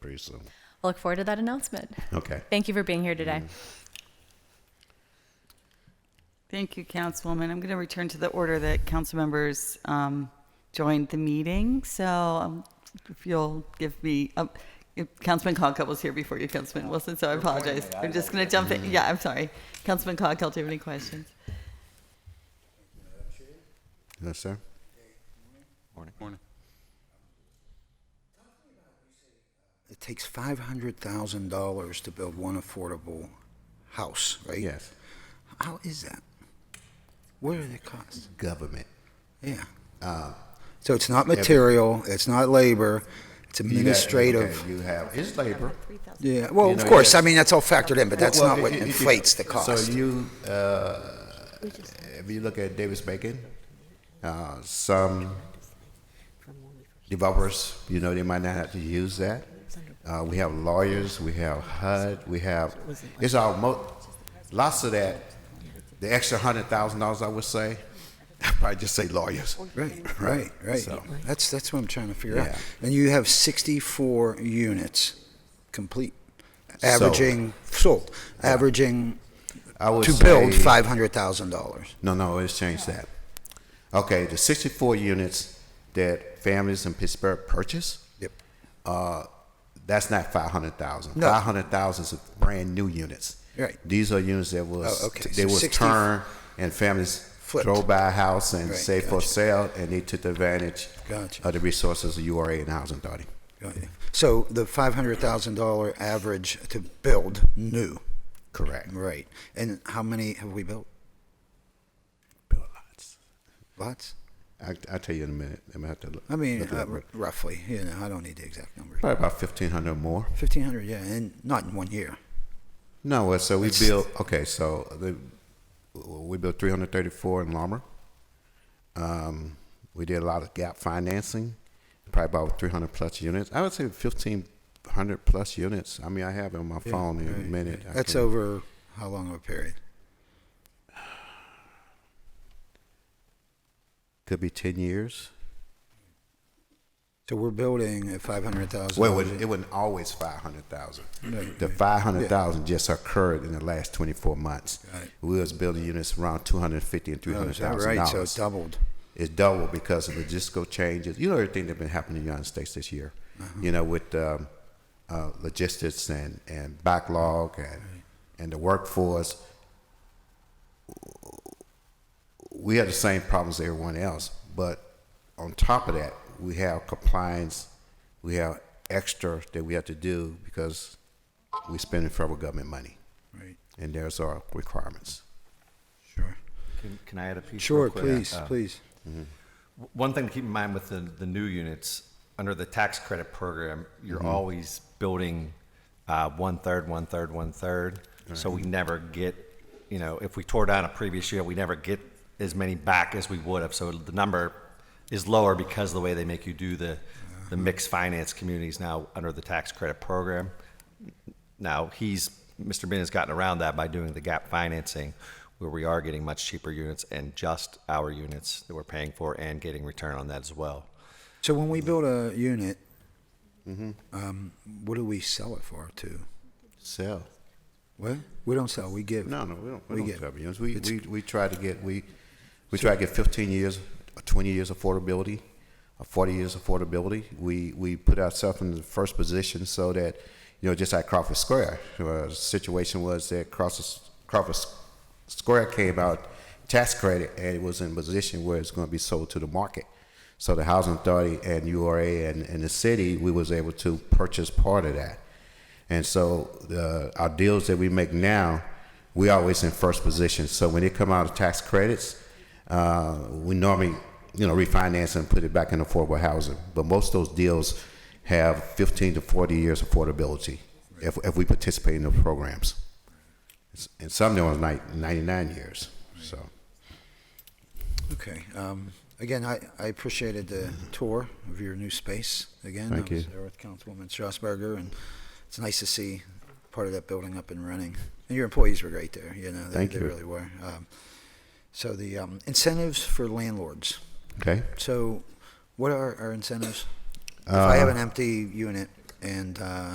very soon. I look forward to that announcement. Okay. Thank you for being here today. Thank you, Councilwoman. I'm going to return to the order that council members um, joined the meeting. So um, if you'll give me, um, if Councilman Conkel was here before you, Councilman Wilson, so I apologize. I'm just going to jump in. Yeah, I'm sorry. Councilman Conkel, do you have any questions? Yes, sir. Morning. Morning. It takes five hundred thousand dollars to build one affordable house, right? Yes. How is that? What are the costs? Government. Yeah. Uh, So it's not material, it's not labor, it's You got- administrative. okay, You have, it's labor. Yeah, well, You of know, course, yes. I mean, that's all factored in, but that's Well, not what if- if you- inflates the cost. So you, uh, if you look at Davis Bacon, uh, some developers, you know, they might not have to use that. Uh, we have lawyers, we have HUD, we have, it's all, mo- lots of that, the extra hundred thousand dollars, I would say, I'd probably just say lawyers. Right, right, right. So- That's, that's what I'm trying to figure out. Yeah. And you have 64 units complete, averaging, sold, averaging, I would to build say- $500,000. No, no, let's change that. Okay, the sixty-four units that families in Pittsburgh purchase, Yep. uh, that's not 500,000. No. 500,000 is brand new units. Right. These are units that was Oh, okay. they So was 60 turned and families Flipped. drove by a house and Right, say for gotcha. sale and they took advantage Gotcha. of the resources of URA and Housing Authority. So the $500,000 average to build new, Correct. right. And how many have we built? Build lots. Lots? I, I'll tell you in a minute. I'm gonna have to look, I mean, look it uh, up. r- roughly, you know, I don't need the exact number. probably about 1,500 more. 1,500, yeah, and not in one year. No, uh, so we It's- built, okay, so the, we built 334 in Larmer. Um, we did a lot of gap financing, probably about 300 plus units. I would say 1,500 plus units. I mean, I have it on my phone in a minute. I That's can- over how long of a period? Could be 10 years. So we're building at five hundred thousand. Well, it wasn't, it wasn't always 500,000. Right, The right. 500,000 just occurred in the last 24 months. Got it. Oh, We was building units around 250 and 300,000 right? So dollars. it doubled. It's double because of logistical changes. You know everything that's been happening in the United States this year. You know with um, uh, logistics and, and backlog and and the workforce. We have the same problems as everyone else, but on top of that, we have compliance. We have extra that we have to do because we're spending federal government money, Right. and there's our requirements. Sure. Can, can I add a piece? Sure. real quick? Please. Uh, please. w- One thing to keep in mind with the, the new units, under the tax credit program, you're always building uh, one third, one third, one third. So we never get, you know, if we tore down a previous year, we never get as many back as we would have. So the number is lower because of the way they make you do the, the mixed finance communities now under the tax credit program. Now, he's, Mr. Bin has gotten around that by doing the gap financing, where we are getting much cheaper units and just our units that we're paying for and getting return on that as well. So when we build a unit, Mm-hmm. um, what do we sell it for? To Sell. what? We don't sell. We give. No, no, we don't. We, We don't get- cover units. We, it's- we we try to get we we try to get 15 years, 20 years affordability, or 40 years affordability. We we put ourselves in the first position so that you know just like Crawford Square, uh, the situation was that Crawford Crawford Square came out tax credit and it was in a position where it's going to be sold to the market. So the housing authority and URA and, and the city, we was able to purchase part of that. And so the, our deals that we make now, we always in first position. So when they come out of tax credits, uh, we normally you know refinance and put it back in affordable housing. But most of those deals have 15 to 40 years affordability if, if we participate in the programs. And some of them are like 99 years. So Okay. Um, again, I, I appreciated the tour of your new space. Again, Mm-hmm. Thank I was you. there with Councilwoman Strasburger, and it's nice to see part of that building up and running. And your employees were great there. You know, they, Thank they you. really were. Um, so the um, incentives for landlords. okay. So, what are our incentives? if I have an empty unit and uh,